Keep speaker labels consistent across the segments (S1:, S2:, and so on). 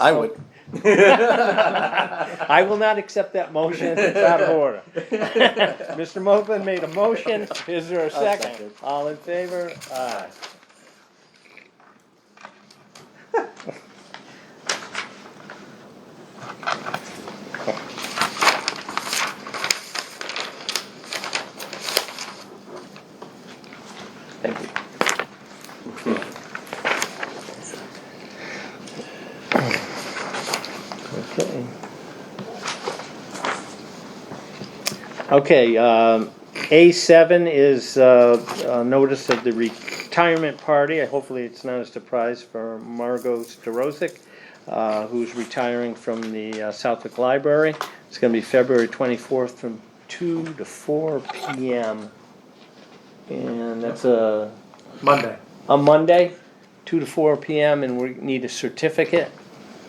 S1: I
S2: Oh.
S1: would.
S3: I will not accept that motion if it's out of order. Mr. Moblin made a motion, is there a second?
S1: second.
S3: All in favor? Aye.
S1: Thank you.
S3: Okay. Okay, um, A7 is uh, uh, notice of the retirement party. Hopefully, it's not a surprise for Margot Starozik, uh, who's retiring from the uh, Southwick Library. It's going to be February 24th from 2 to 4 p.m. And that's a
S4: Monday.
S3: on Monday, two to four PM, and we need a certificate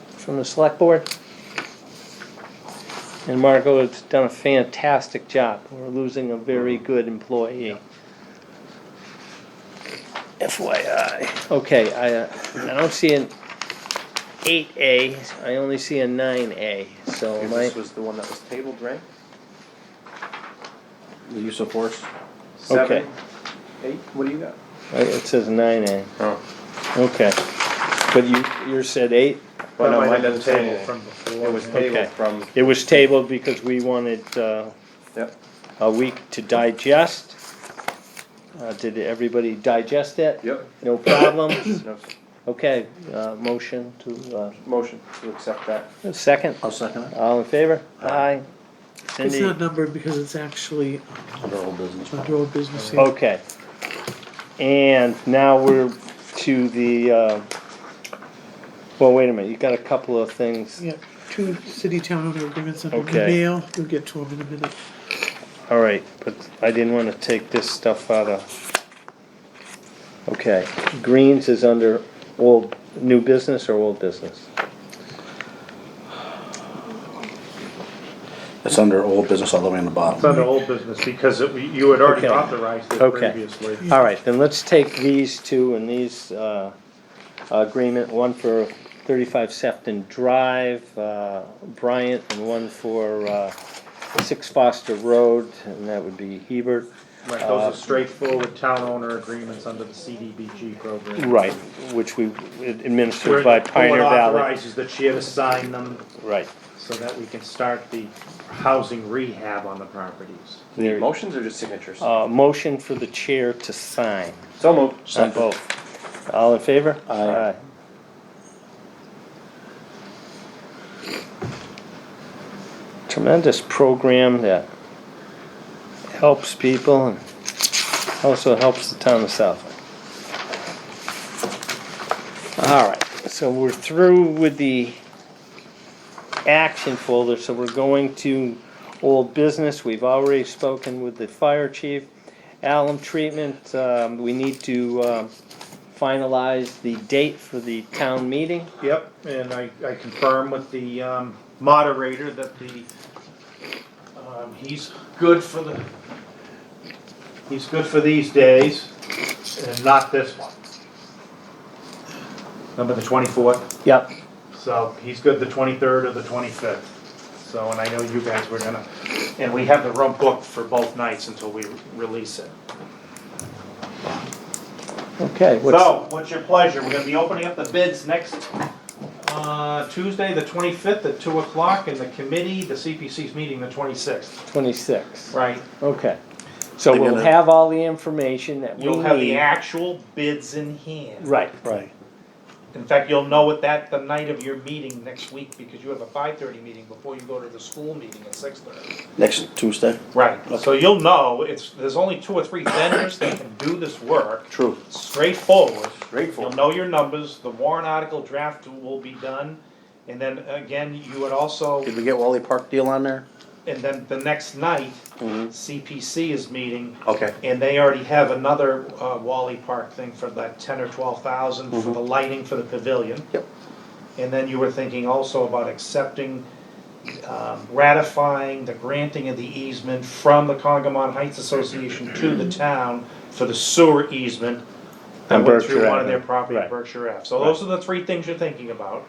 S3: from the select board. And Marco has done a fantastic job. We're losing a very good employee. FYI. Okay, I, uh, I don't see an eight A, I only see a nine A, so my,
S1: This was the one that was tabled, right? The use of force?
S3: Okay.
S1: Seven, eight, what do you got?
S3: I- it says nine A,
S1: Oh.
S3: okay. But you, you said eight?
S1: Well, no,
S4: That might
S1: mine doesn't
S4: have been
S1: say
S4: tabled
S1: anything.
S4: From before.
S1: It was
S4: yeah.
S3: Okay.
S1: tabled from,
S3: It was tabled because we wanted, uh,
S1: yep.
S3: a week to digest. Uh, did everybody digest it?
S1: Yep.
S3: No problems?
S1: No,
S3: Okay, uh, motion to,
S1: Motion to accept that.
S3: uh, second,
S2: I'll second it.
S3: all in favor? Aye.
S5: It's
S3: Cindy,
S5: not numbered because it's actually um,
S2: Under old business.
S5: under old business. yeah.
S3: okay. And now we're to the, uh, well, wait a minute, you got a couple of things.
S5: Yeah, two city town owner agreements under the
S3: Okay.
S5: mail, we'll get to them in a minute.
S3: All right, but I didn't wanna take this stuff out of. Okay, Greens is under old, new business or old business?
S2: It's under old business all the way on the
S4: It's
S2: bottom.
S4: under old business because it, you had already
S3: Okay.
S4: authorized it
S3: Okay.
S4: previously.
S3: All right, then let's take these two and these, uh, agreement, one for thirty-five Sefton Drive, uh, Bryant, and one for, uh, Six Foster Road, and that would be Hebert.
S4: Right, those are straightforward town owner agreements under the CDBG program.
S3: Right, which we administered
S4: Where
S3: by
S4: the
S3: Pioneer
S4: board
S3: Valley.
S4: Authorizes the chair to sign them
S3: Right.
S4: so that we can start the housing rehab on the properties.
S3: There-
S1: Motions or just signatures?
S3: Uh, motion for the chair to sign
S1: So moved.
S3: on both. All in favor?
S2: Aye.
S3: Tremendous program that helps people and also helps the town of Southwick. All right, so we're through with the action folder, so we're going to old business. We've already spoken with the fire chief. Alum treatment, um, we need to, um, finalize the date for the town meeting.
S4: Yep, and I, I confirm with the um, moderator that the, um, he's good for the, he's good for these days and not this one. Number the twenty-fourth,
S3: Yep.
S4: so he's good the twenty-third or the twenty-fifth. So, and I know you guys were gonna, and we have the room booked for both nights until we release it.
S3: Okay, what's,
S4: So, what's your pleasure? We're gonna be opening up the bids next, uh, Tuesday, the twenty-fifth at two o'clock, and the committee, the CPC's meeting the twenty-sixth.
S3: twenty-six,
S4: Right.
S3: okay. So
S2: They're
S3: we'll
S2: gonna-
S3: have all the information that we
S4: You'll have the
S3: need.
S4: actual bids in hand.
S3: Right,
S2: Right.
S4: In fact, you'll know it that the night of your meeting next week, because you have a five-thirty meeting before you go to the school meeting at six-thirty.
S2: Next Tuesday?
S4: Right, so you'll know, it's, there's only two or three vendors that can do this work.
S2: True.
S4: straightforward.
S1: Straightforward.
S4: You'll know your numbers, the warrant article draft will be done, and then again, you would also,
S2: Did we get Wally Park deal on there?
S4: and then the next night, CPC is meeting,
S2: Okay.
S4: and they already have another uh, Wally Park thing for that ten or twelve thousand
S3: Mm-hmm.
S4: for the lighting for the pavilion.
S2: Yep.
S4: And then you were thinking also about accepting, um, ratifying the granting of the easement from the Congamon Heights Association to the town for the sewer easement that
S3: On
S4: went through
S3: Berkshire
S4: one of their
S3: Avenue,
S4: property,
S3: right.
S4: Berkshire Ave. So those are the three things you're thinking about.